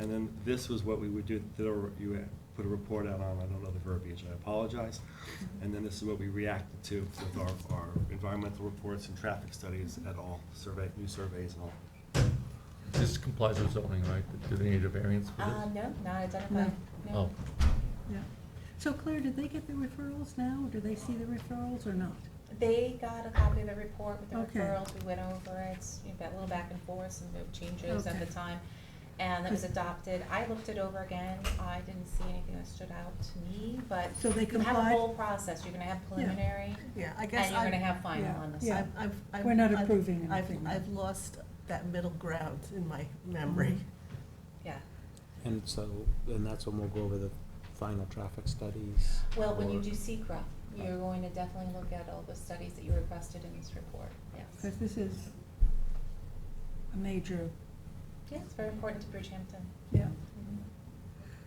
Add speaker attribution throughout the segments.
Speaker 1: And then this was what we would do, there were- you had put a report out on, I don't know the verbiage, I apologize. And then this is what we reacted to with our, our environmental reports and traffic studies at all, survey, new surveys and all.
Speaker 2: This complies with zoning, right? Do they need a variance for
Speaker 3: Uh,
Speaker 2: this?
Speaker 3: no, not identified. No.
Speaker 2: Oh,
Speaker 4: Yeah. So Claire, did they get the referrals now, or do they see the referrals or not?
Speaker 3: They got a copy of the report with the
Speaker 4: Okay.
Speaker 3: referrals, we went over it, s- you know, got a little back and forth, some of the changes at
Speaker 4: Okay.
Speaker 3: the time. And that was
Speaker 4: Good.
Speaker 3: adopted, I looked it over again, I didn't see anything that stood out to me, but
Speaker 4: So they
Speaker 3: you have a
Speaker 4: complied?
Speaker 3: whole process, you're gonna have preliminary,
Speaker 5: Yeah, I guess
Speaker 3: and you're
Speaker 5: I.
Speaker 3: gonna have final on the
Speaker 4: Yeah.
Speaker 3: side.
Speaker 5: I've- I've- I've-
Speaker 4: We're not
Speaker 5: I've-
Speaker 4: approving
Speaker 5: I've-
Speaker 4: anything.
Speaker 5: I've lost that middle ground in my memory.
Speaker 4: Mm-hmm.
Speaker 3: Yeah,
Speaker 6: And so, and that's when we'll go over the final traffic studies.
Speaker 3: well, when you
Speaker 6: or-
Speaker 3: do secra, you're going to definitely look at all the studies that you requested in this report, yes.
Speaker 4: Because this is a major,
Speaker 3: Yeah, it's very important to Bridgehampton.
Speaker 4: yeah.
Speaker 3: Mhm.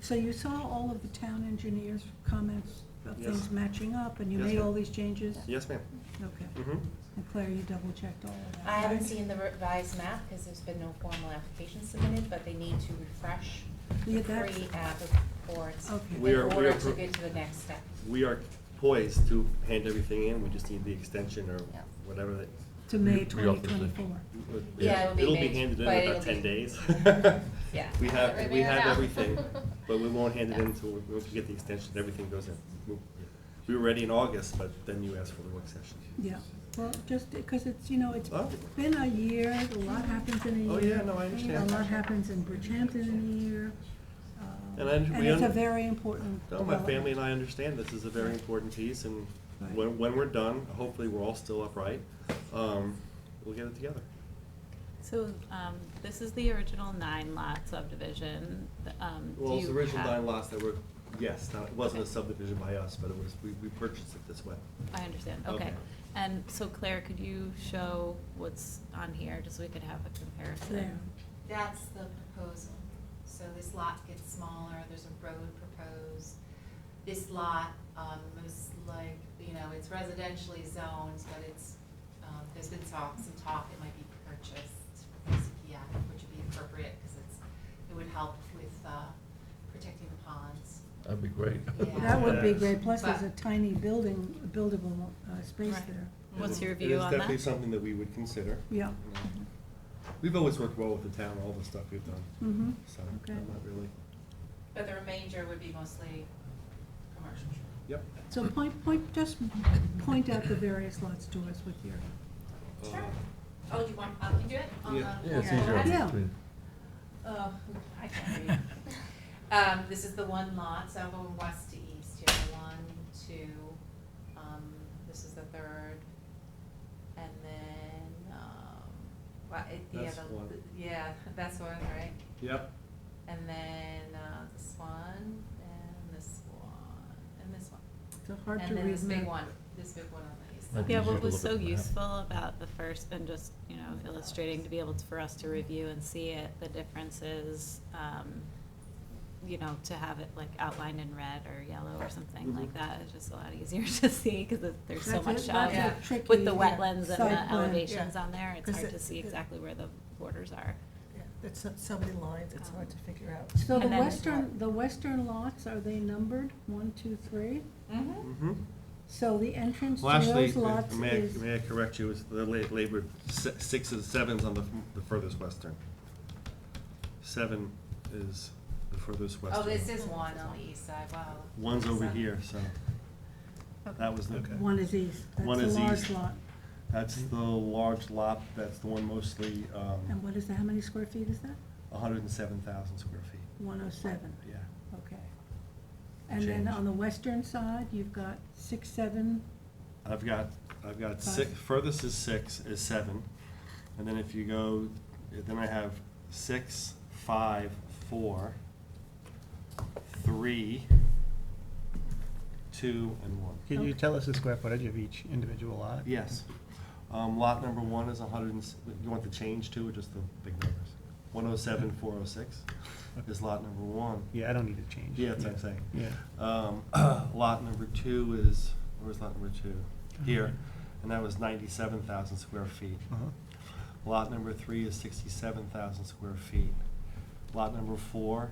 Speaker 4: So you saw all of the town engineers' comments about
Speaker 1: Yes.
Speaker 4: things matching up, and you
Speaker 1: Yes,
Speaker 4: made
Speaker 1: ma'am.
Speaker 4: all these changes?
Speaker 1: Yes, ma'am?
Speaker 4: Okay.
Speaker 1: Mm-hmm.
Speaker 4: And Claire, you double-checked all of that?
Speaker 3: I haven't
Speaker 4: right?
Speaker 3: seen the revised map because there's been no formal application submitted, but they need to refresh
Speaker 4: Yeah,
Speaker 3: the
Speaker 4: that's-
Speaker 3: pre-app reports
Speaker 4: Okay.
Speaker 1: We
Speaker 3: in
Speaker 1: are- we
Speaker 3: order
Speaker 1: are
Speaker 3: to
Speaker 1: pro-
Speaker 3: get to the next step.
Speaker 1: We are poised to hand everything in, we just need the extension or
Speaker 3: Yeah.
Speaker 1: whatever that.
Speaker 4: To May
Speaker 2: We- we also did.
Speaker 4: 2024.
Speaker 3: Yeah, it'll be made,
Speaker 1: handed in
Speaker 3: but
Speaker 1: in
Speaker 3: it'll
Speaker 1: about ten
Speaker 3: be-
Speaker 1: days.
Speaker 3: Yeah.
Speaker 1: We have, we
Speaker 7: Everything
Speaker 1: have
Speaker 7: out.
Speaker 1: everything, but we won't hand it in
Speaker 3: Yeah.
Speaker 1: until, once we get the extension, everything goes in. We- We were ready in August, but then you asked for the work session.
Speaker 4: Yeah, well, just because it's, you know, it's
Speaker 1: Oh.
Speaker 4: been a year, a lot happens in a
Speaker 1: Oh,
Speaker 4: year.
Speaker 1: yeah, no, I understand.
Speaker 4: A lot happens in Bridgehampton in a year. uh,
Speaker 1: And I- we
Speaker 4: it's a
Speaker 1: un-
Speaker 4: very important
Speaker 1: No, my
Speaker 4: development.
Speaker 1: family and I understand this is a very important piece, and
Speaker 4: Right.
Speaker 1: when, when we're done, hopefully we're all still upright, um, we'll get it together.
Speaker 7: So, um, this is the original nine lot subdivision, th- um, do you have?
Speaker 1: Well, it's the original nine lots that were, yes, not- it wasn't a subdivision by us, but it was, we, we purchased it this way.
Speaker 7: I understand,
Speaker 1: Okay.
Speaker 7: okay. And so Claire, could you show what's on here, just so we could have a
Speaker 4: There.
Speaker 7: comparison?
Speaker 8: That's the proposal. So this lot gets smaller, there's a road proposed. This lot, um, most like, you know, it's residentially zoned, but it's, um, there's been talk, some talk it might be purchased from CPF, which would be appropriate, because it's, it would help with, uh, protecting the ponds.
Speaker 2: that'd be great.
Speaker 8: Yeah.
Speaker 4: That would be
Speaker 1: Yes.
Speaker 4: great, plus there's a
Speaker 8: But-
Speaker 4: tiny building, buildable uh, space
Speaker 7: Right.
Speaker 4: there.
Speaker 7: What's your
Speaker 1: It is
Speaker 7: view on
Speaker 1: definitely
Speaker 7: that?
Speaker 1: something that we would consider.
Speaker 4: Yeah.
Speaker 1: you know. We've always worked well with the town, all the stuff we've done,
Speaker 4: Mm-hmm,
Speaker 1: so
Speaker 4: Okay.
Speaker 1: I'm not really,
Speaker 8: But the remainder would be mostly commercial.
Speaker 1: yep.
Speaker 4: so point, point, just point out the various lots to us with your,
Speaker 8: Sure.
Speaker 1: Uh,
Speaker 8: Oh, do you want, I can do it? on the-
Speaker 1: Yeah.
Speaker 2: Yeah, it's
Speaker 8: on the
Speaker 2: easier.
Speaker 8: website?
Speaker 4: Yeah.
Speaker 8: Oh, I can't read. Um, this is the one lot, so I'm going west to east here, one, two, um, this is the third. And then, um, well, it, the
Speaker 1: That's
Speaker 8: other,
Speaker 1: one.
Speaker 8: yeah, that's one, right?
Speaker 1: Yep,
Speaker 8: And then, uh, this one, and this one, and this one.
Speaker 4: it's hard to read.
Speaker 8: And then this big
Speaker 4: map.
Speaker 8: one, this big one on the east
Speaker 2: Might
Speaker 8: side.
Speaker 2: be
Speaker 7: Yeah,
Speaker 2: easier
Speaker 7: what
Speaker 2: to
Speaker 7: was
Speaker 2: look
Speaker 7: so
Speaker 2: at the map.
Speaker 7: useful about the first, and just, you know, illustrating to be able to, for us to review and see it, the differences, um, you know, to have it like outlined in red or yellow or something
Speaker 1: Mhm.
Speaker 7: like that is just a lot easier to see, cause it- there's so
Speaker 4: That's a-
Speaker 7: much of
Speaker 4: that's a
Speaker 8: Yeah.
Speaker 4: tricky,
Speaker 7: With the
Speaker 4: yeah,
Speaker 7: wetlands and
Speaker 4: site
Speaker 7: the
Speaker 4: plan.
Speaker 7: elevations on there, it's
Speaker 5: 'Cause
Speaker 7: hard
Speaker 5: it-
Speaker 7: to see
Speaker 5: it-
Speaker 7: exactly where the borders are.
Speaker 5: Yeah, That's so- so many lines, it's
Speaker 3: Oh.
Speaker 5: hard to figure out.
Speaker 4: So the
Speaker 7: And then-
Speaker 4: western, the western lots, are they numbered, one, two, three?
Speaker 8: Mm-hmm.
Speaker 1: mm-hmm.
Speaker 4: So the entrance
Speaker 1: Well,
Speaker 4: to
Speaker 1: actually, uh,
Speaker 4: those lots
Speaker 1: may I,
Speaker 4: is,
Speaker 1: may I correct you, it's the la- labored si- six and sevens on the, f- the furthest western. Seven is the furthest western.
Speaker 8: Oh, this is one on the east side, wow.
Speaker 1: One's over
Speaker 8: So-
Speaker 1: here, so that was the,
Speaker 4: one is east,
Speaker 1: One
Speaker 4: that's a
Speaker 1: is
Speaker 4: large
Speaker 1: east.
Speaker 4: lot.
Speaker 1: that's the large lot, that's the one mostly,
Speaker 4: And
Speaker 1: um,
Speaker 4: what is that, how many square feet is that?
Speaker 1: hundred and seven thousand square feet,
Speaker 4: One oh seven,
Speaker 1: yeah.
Speaker 4: okay. And then
Speaker 1: Change.
Speaker 4: on the western side, you've got six, seven,
Speaker 1: I've got, I've got six,
Speaker 4: Five.
Speaker 1: furthest is six, is seven, and then if you go, then I have six, five, four, three, two, and one.
Speaker 9: Can
Speaker 4: Okay.
Speaker 9: you tell us the square footage of each individual lot?
Speaker 1: Yes. Um, lot number one is hundred and, s- you want the change too, or just the big numbers? One oh seven, four oh six is lot number one.
Speaker 9: Yeah, I don't need to change.
Speaker 1: Yeah, that's what I'm saying.
Speaker 9: Yeah.
Speaker 1: Um, lot number two is, where's lot number two? Here, and that was ninety-seven thousand square feet.
Speaker 9: Uh-huh.
Speaker 1: Lot number three is sixty-seven thousand square feet. lot number four